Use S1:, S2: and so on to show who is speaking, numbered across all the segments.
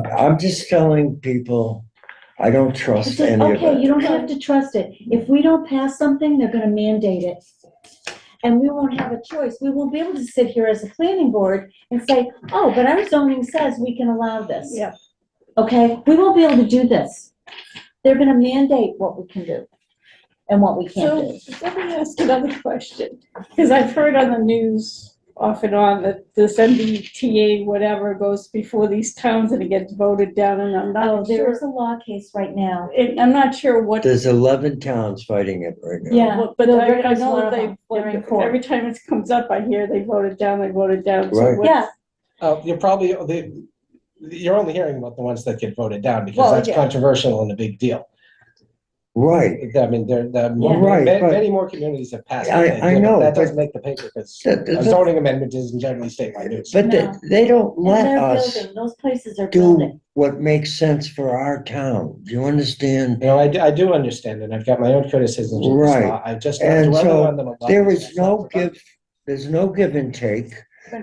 S1: I'm just telling people, I don't trust
S2: It's like,
S1: any of
S2: okay, you
S1: it.
S2: don't have to trust it. If we don't pass something, they're gonna mandate it. And we won't have a choice. We won't be able to sit here as a planning board and say, oh, but our zoning says we can allow this.
S3: Yep.
S2: Okay, we won't be able to do this. They're gonna mandate what we can do and what we can't
S3: So,
S2: do.
S3: let me ask another question, because I've heard on the news off and on that this MBTA whatever goes before these towns and it gets voted down, and I'm
S2: Oh,
S3: not
S2: there
S3: sure.
S2: is a law case right now.
S3: and I'm not sure what,
S1: There's eleven towns fighting it right now.
S2: Yeah,
S3: what- but
S2: Bill
S3: I
S2: Britt
S3: I
S2: is one
S3: know
S2: of
S3: they,
S2: them. They're in
S3: like,
S2: court.
S3: every time it comes up, I hear they voted down, they voted down. So
S1: Right.
S3: what-
S2: Yeah,
S4: Uh, you're probably, the, you're only hearing about the ones that get voted down because
S3: Well,
S4: that's
S3: yeah.
S4: controversial and a big deal.
S1: Right,
S4: I mean, there, there,
S2: Yeah.
S1: Right,
S4: many,
S1: but-
S4: many more communities have passed.
S1: I-
S4: it than
S1: I
S4: did, but
S1: know,
S4: That
S1: but-
S4: doesn't make the paper because
S1: That-
S4: a
S1: that-
S4: zoning amendment isn't generally statewide news.
S1: but they,
S2: No.
S1: they don't
S2: and
S1: let
S2: they're
S1: us
S2: building, those places are building.
S1: do what makes sense for our town. Do you understand?
S4: You know, I, do- I do understand and I've got my own criticisms of this
S1: Right.
S4: law. I just not
S1: And
S4: dwelling
S1: so
S4: on them a lot.
S1: There
S4: That's
S1: is
S4: not
S1: no
S4: productive.
S1: give, there's no give and take.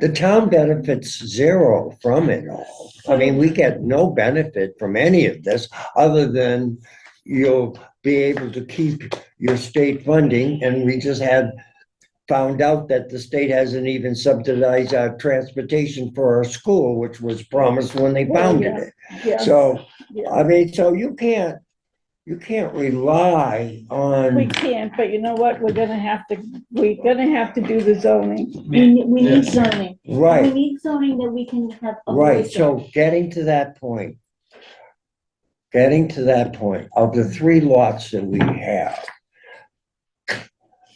S1: The town benefits zero from it all. I mean, we get no benefit from any of this, other than you'll be able to keep your state funding, and we just had found out that the state hasn't even subsidized our transportation for our school, which was promised when they founded it.
S3: yeah,
S1: So,
S3: yeah.
S1: I mean, so you can't, you can't rely
S3: We
S1: on,
S3: can't, but you know what, we're gonna have to, we're gonna have to do the zoning.
S2: We, ne- we need
S4: Yes.
S2: zoning. We
S1: right,
S2: need zoning that we can have a voice
S1: right,
S2: in.
S1: so getting to that point. Getting to that point, of the three lots that we have,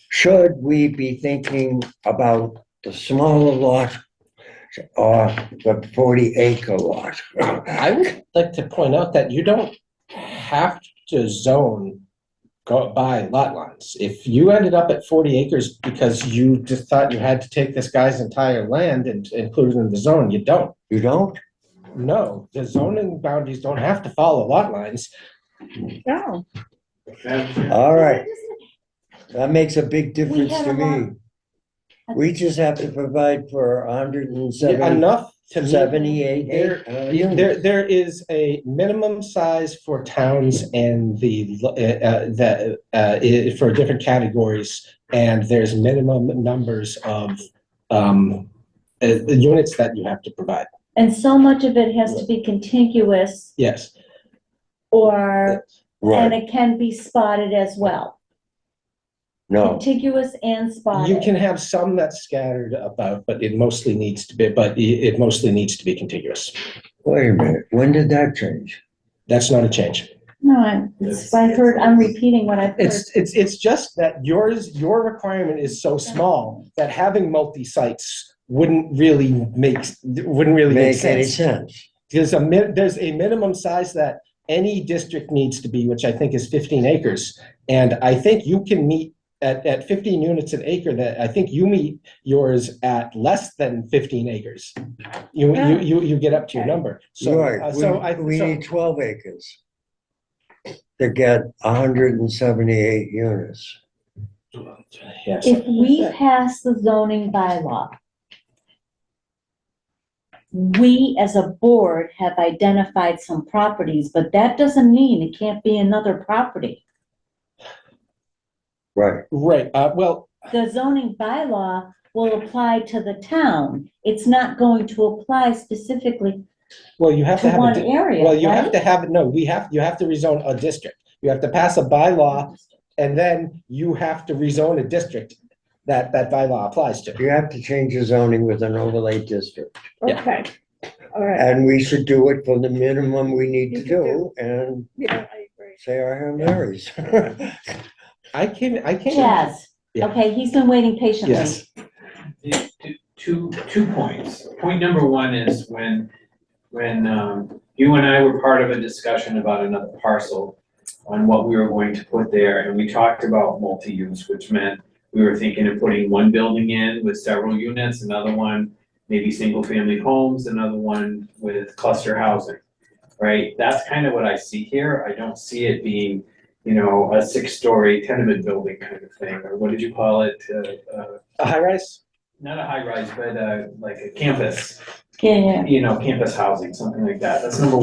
S1: should we be thinking about the smaller lot or the forty acre lot?
S4: I would like to point out that you don't have to zone go by lot lines. If you ended up at forty acres because you just thought you had to take this guy's entire land and include it in the zone, you don't.
S1: You don't?
S4: No, the zoning boundaries don't have to follow lot lines.
S3: No,
S1: All right, that makes a big difference
S2: had
S1: to
S2: a lot-
S1: me. We just have to provide for a hundred and seventy
S4: Enough to meet
S1: Seventy-eight
S4: There- There, there is a minimum size for towns and the, uh, uh, the, uh, i- for different categories. And there's minimum numbers of, um, uh, the units that you have to provide.
S2: And so much of it has to be contiguous
S4: Yes.
S2: or, and
S1: Right,
S2: it can be spotted as well.
S1: no,
S2: Contiguous and
S4: You
S2: spotted.
S4: can have some that's scattered about, but it mostly needs to be, but i- it mostly needs to be contiguous.
S1: wait a minute, when did that change?
S4: That's not a change.
S2: No, I'm, it's- I've heard, I'm repeating what I've heard.
S4: It's, it's, it's just that yours, your requirement is so small that having multi-sites wouldn't really make, wouldn't really make
S1: Make any
S4: sense.
S1: sense?
S4: There's a min, there's a minimum size that any district needs to be, which I think is fifteen acres. And I think you can meet at, at fifteen units an acre, that, I think you meet yours at less than fifteen acres. You, you, you, you get up to your number. So, uh,
S1: Right,
S4: so I,
S1: we, we
S4: so,
S1: need twelve acres to get hundred and seventy-eight units.
S4: yes.
S2: If we pass the zoning bylaw, we as a board have identified some properties, but that doesn't mean it can't be another property.
S1: Right,
S4: Right, uh, well,
S2: The zoning bylaw will apply to the town. It's not going to apply specifically
S4: well, you have
S2: to
S4: to have. a
S2: one
S4: di-
S2: area,
S4: Well, you have
S2: right?
S4: to have, no, we have, you have to rezone a district. You have to pass a bylaw and then you have to rezone a district that that bylaw applies to.
S1: you have to change the zoning with an overlay district,
S4: Yeah.
S3: okay, all right,
S1: and we should do it for the minimum we need to
S3: You can
S1: do, and
S3: yeah, I agree.
S1: say our Hail Marys.
S4: I can, I can.
S2: Jazz,
S4: Yeah.
S2: okay, he's been waiting patiently.
S4: Yes,
S5: Yeah, t- Two, two points. Point number one is when, when um, you and I were part of a discussion about another parcel on what we were going to put there, and we talked about multi-use, which meant we were thinking of putting one building in with several units, another one, maybe single-family homes, another one with cluster housing, right? That's kind of what I see here. I don't see it being, you know, a six-story tenement building kind of thing, or what did you call it? Uh, uh,
S4: a high rise,
S5: not a high rise, but uh, like a campus,
S2: Yeah, yeah.
S5: you know, campus housing, something like that. That's number